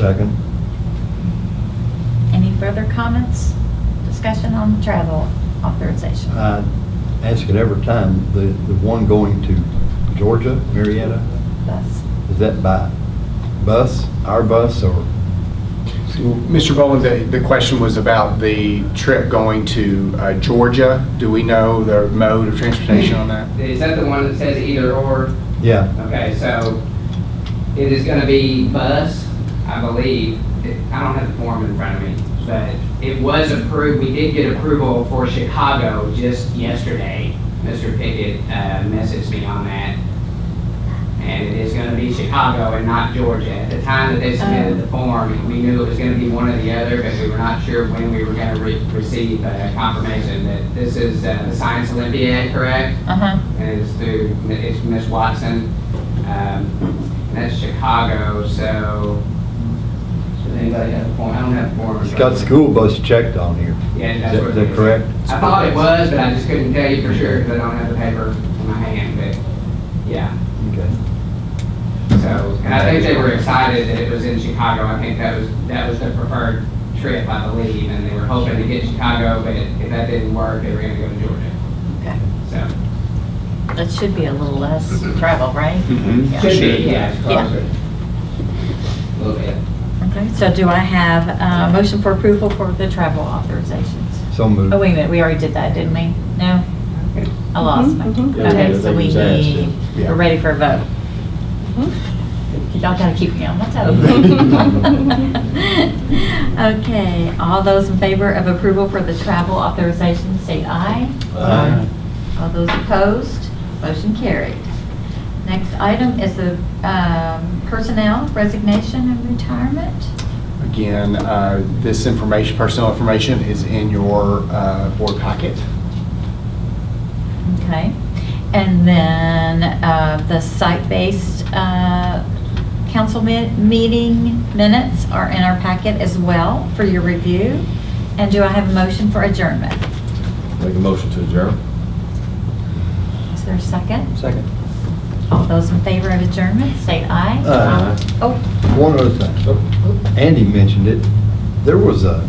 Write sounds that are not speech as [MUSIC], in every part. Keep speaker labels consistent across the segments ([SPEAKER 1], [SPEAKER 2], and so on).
[SPEAKER 1] Second.
[SPEAKER 2] Any further comments, discussion on the travel authorization?
[SPEAKER 1] I ask it every time, the, the one going to Georgia, Marietta,
[SPEAKER 2] Bus.
[SPEAKER 1] is that by bus, our bus, or?
[SPEAKER 3] Mr. Boland, the, the question was about the trip going to uh, Georgia. Do we know the mode of transportation on that?
[SPEAKER 4] Is that the one that says either or?
[SPEAKER 1] Yeah,
[SPEAKER 4] Okay, so it is gonna be bus, I believe. It- I don't have the form in front of me, but it was approved, we did get approval for Chicago just yesterday. Mr. Pickett uh, messaged me on that. And it is gonna be Chicago and not Georgia. At the time that they submitted the form, we knew it was gonna be one or the other, but we were not sure when we were gonna re- receive uh, confirmation that this is uh, the Science Olympiad, correct?
[SPEAKER 2] Uh-huh.
[SPEAKER 4] and it's through, it's Miss Watson. Um, and that's Chicago, so, does anybody have a point? I don't have a form.
[SPEAKER 1] it's got school bus checked on here.
[SPEAKER 4] Yeah,
[SPEAKER 1] Is
[SPEAKER 4] that's
[SPEAKER 1] that-
[SPEAKER 4] what.
[SPEAKER 1] is
[SPEAKER 4] it
[SPEAKER 1] that correct?
[SPEAKER 4] I thought it was, but I just couldn't tell you for sure because I don't have the paper in my hand, but, yeah.
[SPEAKER 1] Okay.
[SPEAKER 4] So, and I think they were excited that it was in Chicago. I think that was, that was their preferred trip, I believe, and they were hoping to get Chicago, but if that didn't work, they were gonna go to Georgia,
[SPEAKER 2] Okay.
[SPEAKER 4] so.
[SPEAKER 2] That should be a little less travel, right?
[SPEAKER 3] Mhm.
[SPEAKER 2] Yeah.
[SPEAKER 4] Mm-hmm. Should be, yeah, it's
[SPEAKER 2] Yeah.
[SPEAKER 4] closer. A little bit.
[SPEAKER 2] Okay, so do I have a motion for approval for the travel authorizations?
[SPEAKER 1] So moved.
[SPEAKER 2] Oh, wait a minute, we already did that, didn't we? No? I lost my. Okay, so we need, we're ready for a vote. Y'all gotta keep me on my toes. [LAUGHS] Okay, all those in favor of approval for the travel authorization, say aye.
[SPEAKER 1] Aye.
[SPEAKER 2] All those opposed, motion carried. Next item is the um, personnel resignation and retirement.
[SPEAKER 3] Again, uh, this information, personal information is in your uh, board packet.
[SPEAKER 2] Okay. And then uh, the site-based uh, council mi- meeting minutes are in our packet as well for your review. And do I have a motion for adjournment?
[SPEAKER 5] Make a motion to adjourn.
[SPEAKER 2] Is there a second?
[SPEAKER 5] Second.
[SPEAKER 2] All those in favor of adjournment, say aye.
[SPEAKER 1] Aye.
[SPEAKER 2] Oh,
[SPEAKER 1] One other thing, Andy mentioned it, there was a,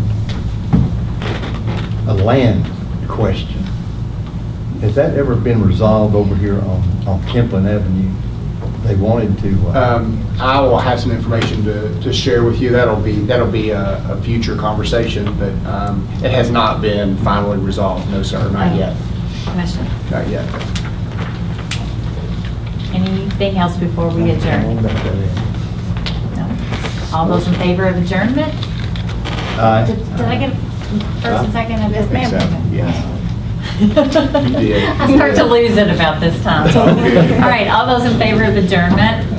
[SPEAKER 1] a land question. Has that ever been resolved over here on, on Kemplin Avenue? They wanted to, uh,
[SPEAKER 3] Um, I will have some information to, to share with you. That'll be, that'll be a, a future conversation, but um, it has not been finally resolved. No, sir, not yet,
[SPEAKER 2] question.
[SPEAKER 3] not yet.
[SPEAKER 2] Anything else before we adjourn? No? All those in favor of adjournment?
[SPEAKER 1] Aye.
[SPEAKER 2] Did did I get a first and second of this?
[SPEAKER 3] think so,
[SPEAKER 2] ma'am?
[SPEAKER 3] yes.
[SPEAKER 2] [LAUGHS]
[SPEAKER 3] You did.
[SPEAKER 2] I start to lose it about this time.
[SPEAKER 3] Okay.
[SPEAKER 2] All right, all those in favor of adjournment,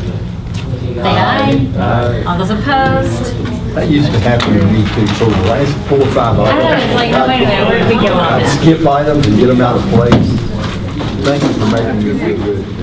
[SPEAKER 2] say aye.
[SPEAKER 1] Aye.
[SPEAKER 2] All those opposed?
[SPEAKER 1] That used to happen to me too, for the last four or five Uh, hours.
[SPEAKER 2] I know, it's like, wait a minute, where did we go on
[SPEAKER 1] I'd
[SPEAKER 2] this?
[SPEAKER 1] skip items and get them out of place. Thank you for making me feel good.